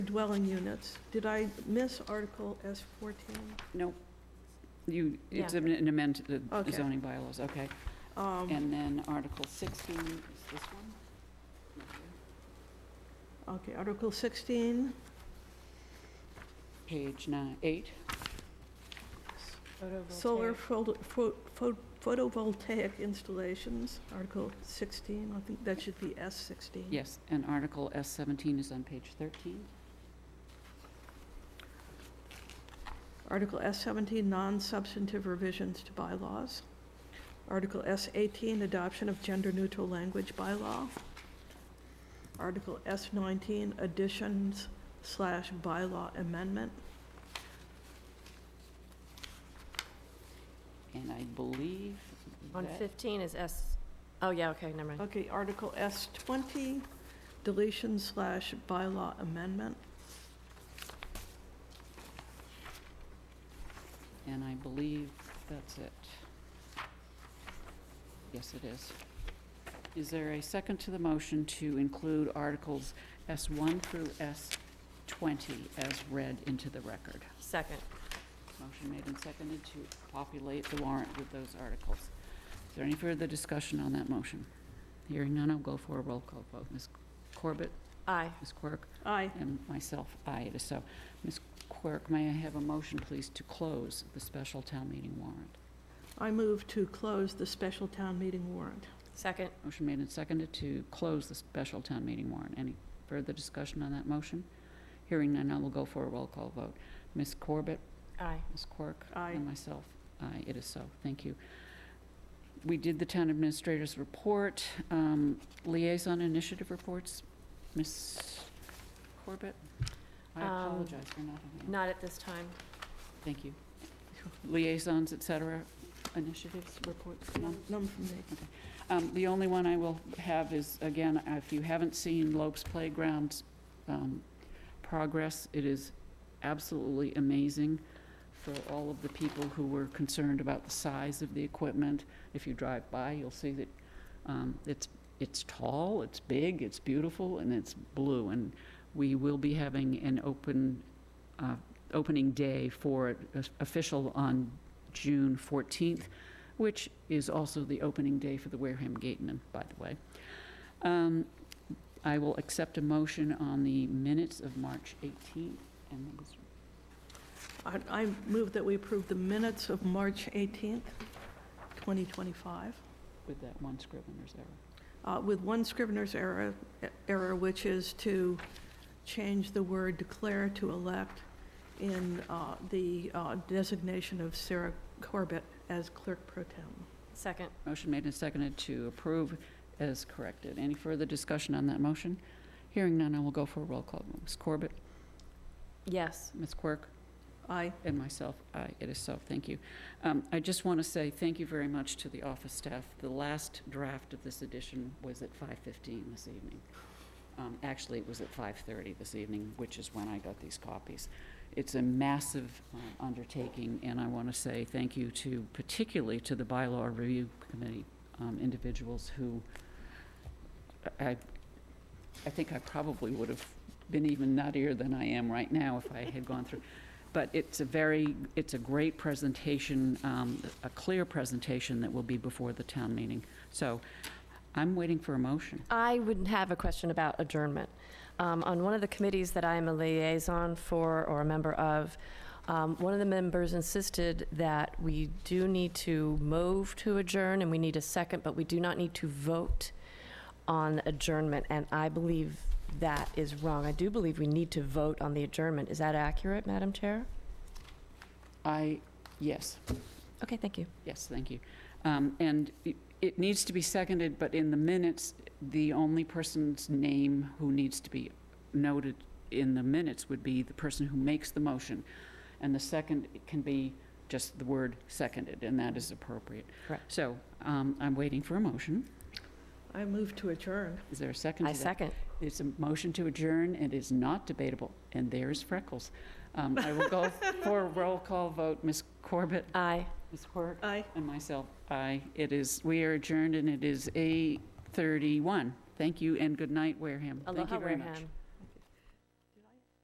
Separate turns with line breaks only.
dwelling units. Did I miss Article S fourteen?
Nope. You, it's
Yeah.
an amendment to the
Okay.
zoning bylaws, okay.
Um,
Mm-hmm.
And then Article 16 is this one?
Okay, Article sixteen,
Page nine, eight.
solar photo- pho- pho- photovoltaic installations, Article sixteen, I think that should be S sixteen.
Mm-hmm.
Yes, and Article S-17 is on page 13.
Article S seventeen, non-substantive revisions to bylaws. Article S eighteen, adoption of gender-neutral language bylaw. Article S nineteen, additions slash bylaw amendment.
And I believe
On
that-
15 is S, oh, yeah, okay, never mind.
Okay, Article S twenty, deletion slash bylaw amendment.
and I believe that's it. Yes, it is. Is there a second to the motion to include Articles S-1 through S-20 as read into the record?
Second.
Motion made and seconded to populate the warrant with those articles. Is there any further discussion on that motion? Hearing none, I'll go for a roll call vote. Ms. Corbett,
Aye.
Ms. Quirk,
Aye.
and myself, aye, it is so. Ms. Quirk, may I have a motion, please, to close the special town meeting warrant?
I move to close the special town meeting warrant.
Second.
Motion made and seconded to close the special town meeting warrant. Any further discussion on that motion? Hearing none, I will go for a roll call vote. Ms. Corbett,
Aye.
Ms. Quirk?
Aye.
And myself, aye, it is so, thank you. We did the town administrator's report, um, liaison initiative reports. Ms. Corbett? I
Um,
apologize for not having,
Not at this time.
thank you. Liaisons, et cetera, initiatives, reports, none?
None from me.
Um, The only one I will have is, again, if you haven't seen Lopes Playground's um, progress, it is absolutely amazing for all of the people who were concerned about the size of the equipment. If you drive by, you'll see that um, it's, it's tall, it's big, it's beautiful, and it's blue. And we will be having an open, uh, opening day for it, uh, official on June 14th which is also the opening day for the Wareham Gateman, by the way. Um, I will accept a motion on the minutes of March 18th. And that was-
I, I move that we approve the minutes of March eighteenth, twenty twenty-five,
with that one scrivener's error.
uh, with one scrivener's error, error, which is to change the word declare to elect in, uh, the, uh, designation of Sarah Corbett as clerk pro tem.
Second.
Motion made and seconded to approve as corrected. Any further discussion on that motion? Hearing none, I will go for a roll call. Ms. Corbett,
Yes.
Ms. Quirk,
Aye.
and myself, aye, it is so, thank you. Um, I just want to say thank you very much to the office staff. The last draft of this edition was at 5:15 this evening. Um, Actually, it was at 5:30 this evening, which is when I got these copies. It's a massive uh, undertaking, and I want to say thank you to, particularly to the bylaw review committee um, individuals who, I, I think I probably would have been even nuttier than I am right now if I had gone through but it's a very, it's a great presentation, um, a clear presentation that will be before the town meeting. So I'm waiting for a motion.
I would have a question about adjournment. Um, On one of the committees that I am a liaison for or a member of, um, one of the members insisted that we do need to move to adjourn, and we need a second, but we do not need to vote on adjournment, and I believe that is wrong. I do believe we need to vote on the adjournment. Is that accurate, Madam Chair?
I, yes,
Okay, thank you.
yes, thank you. Um, And it- it needs to be seconded, but in the minutes, the only person's name who needs to be noted in the minutes would be the person who makes the motion. And the second can be just the word seconded, and that is appropriate.
Correct.
So um, I'm waiting for a motion.
I move to adjourn.
Is there a second
I
to that?
second.
It's a motion to adjourn and is not debatable, and there's Freckles. Um, I will go for a roll call vote. Ms. Corbett?
Aye.
Ms. Quirk?
Aye.
And myself, aye. It is, we are adjourned, and it is 8:31. Thank you and good night, Wareham. Thank
Aloha,
you very much.
Wareham.